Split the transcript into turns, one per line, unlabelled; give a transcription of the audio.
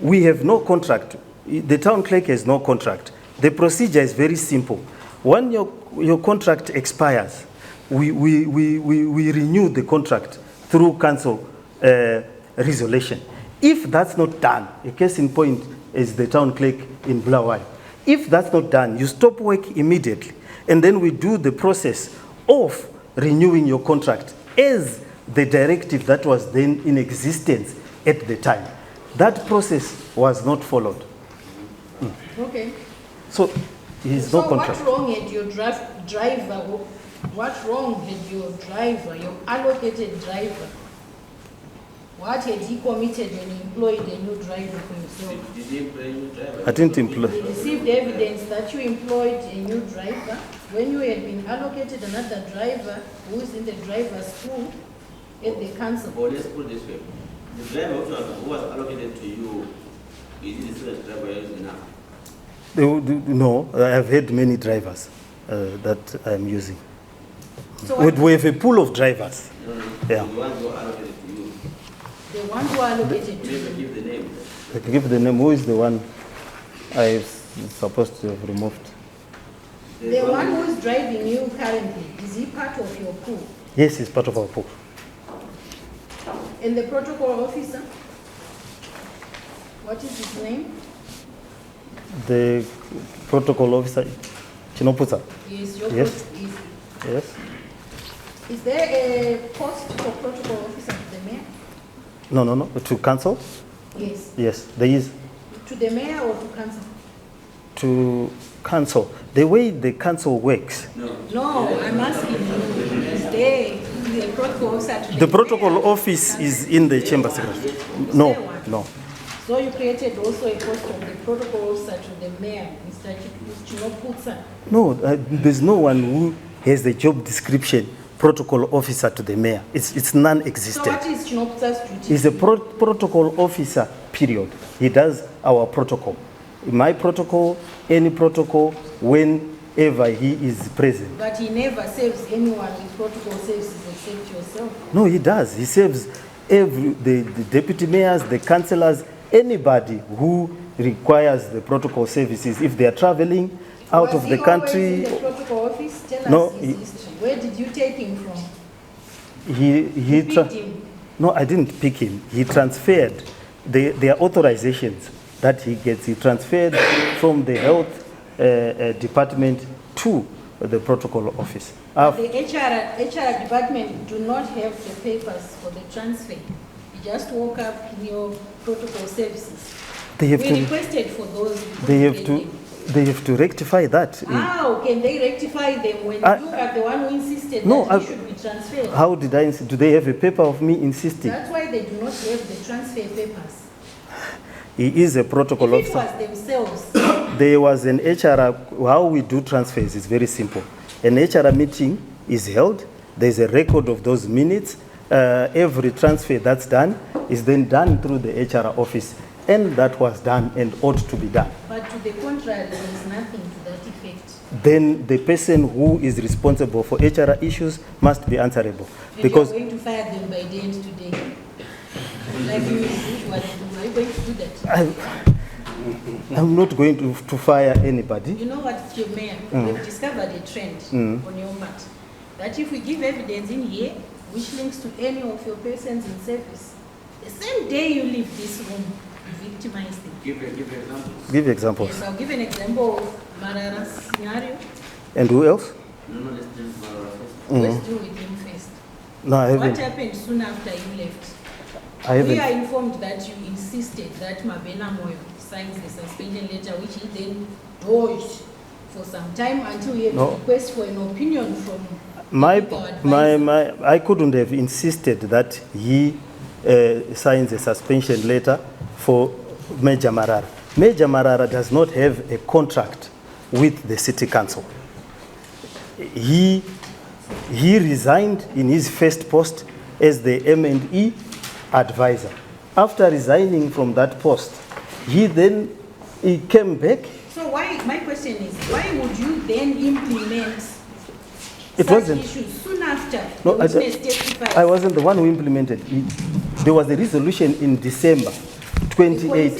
We have no contract. The town clerk has no contract. The procedure is very simple. When your, your contract expires, we, we, we, we, we renew the contract through council uh, resolution. If that's not done, a case in point is the town clerk in Blaawai. If that's not done, you stop work immediately, and then we do the process of renewing your contract as the directive that was then in existence at the time. That process was not followed.
Okay.
So there's no contract.
So what wrong had your drive, driver, wh- what wrong had your driver, your allocated driver? What had he committed when he employed a new driver for himself?
Did he employ new driver?
I didn't employ.
We received evidence that you employed a new driver when you had been allocated another driver who is in the driver's pool at the council.
Or let's put it this way, the driver who was- who was allocated to you, is it the same driver you're using now?
They would- No, I've had many drivers uh, that I'm using.
So
We
what-
we have a pool of drivers.
No, no,
Yeah.
The ones who are allocated to you,
the one who allocated to
never
you,
give the name.
I can give the name, who is the one I was supposed to have removed?
the one who is driving you currently, is he part of your pool?
Yes, he's part of our pool.
And the protocol officer? What is his name?
The protocol officer, Chinopuza,
He Is your, pro-
Yes.
is,
yes?
is there a post for protocol officer to the mayor?
No, no, no, to council?
Yes.
Yes, there is.
To the mayor or to council?
To council, the way the council works,
No, I'm asking you, is there a protocol officer to
the
the mayor?
protocol office is in the chamber secretary. No, no.
So you created also a post of the protocol officer to the mayor, Mr. Chip- Chinoputsa?
No, uh, there's no one who has the job description, protocol officer to the mayor. It's, it's
So what
non-existent.
is Chinoputsa's duty?
He's a pro- protocol officer, period. He does our protocol. My protocol, any protocol, whenever he is present.
But he never saves anyone with protocol services except yourself.
No, he does. He serves every, the, the deputy mayors, the councillors, anybody who requires the protocol services. If they are traveling out
Was
of
he
the country,
always in the protocol office? Tell
No,
us
he-
his history. Where did you take him from?
he, he,
You
tra-
picked him.
No, I didn't pick him. He transferred the, their authorizations that he gets. He transferred from the health uh, uh, department to the protocol office.
But
Uh,
The HR, HR department do not have the papers for the transfer. You just walk up in your protocol services.
they
We
have to.
requested for those. we
They have
couldn't
to.
get them.
They have to rectify that.
How can they rectify them when you
I-
are the one who insisted
Uh, No,
that
I-
he should be transferred?
How did I? ins- Do they have a paper of me insisting?
That's why they do not have the transfer papers.
He is a
If
protocol
it
officer.
was themselves,
There was an HR, how we do transfers is very simple. An HR meeting is held, there's a record of those minutes. Uh, every transfer that's done is then done through the HR office. And that was done and ought to be done.
but to the contrary, there is nothing to that effect.
Then the person who is responsible for HR issues must be answerable.
Because
Because
you are going to fire them by the end today. Like you usually do, are you going to do that?
I, I'm not going to, to fire anybody.
You know what, your mayor,
Mm.
we've discovered a trend on your mat. That if we give evidence in here, which links to any of your persons in service, the same day you leave this room, you victimize them.
Give, a- give examples.
Give examples.
Yes, I'll give an example of Marara's scenario.
And who else?
No, no, let's do it for our first.
Let's deal with him first.
No, Mm. I
What
haven't.
happened soon after you left?
I
We
haven't.
are informed that you insisted that Mabena Moyo signs the suspension letter, which he then dodged for some time until he had
No.
a request for an opinion from.
My,
legal advisor.
my, my, I couldn't have insisted that he uh, signs a suspension letter for Major Marara. Major Marara does not have a contract with the city council. He, he resigned in his first post as the M&E advisor. After resigning from that post, he then he came back.
So why, my question is, why would you then implement
It
such
wasn't-
issues soon after the
No, I,
witness
I
testifies?
wasn't the one who implemented it. There was a resolution in December
Before you
2018.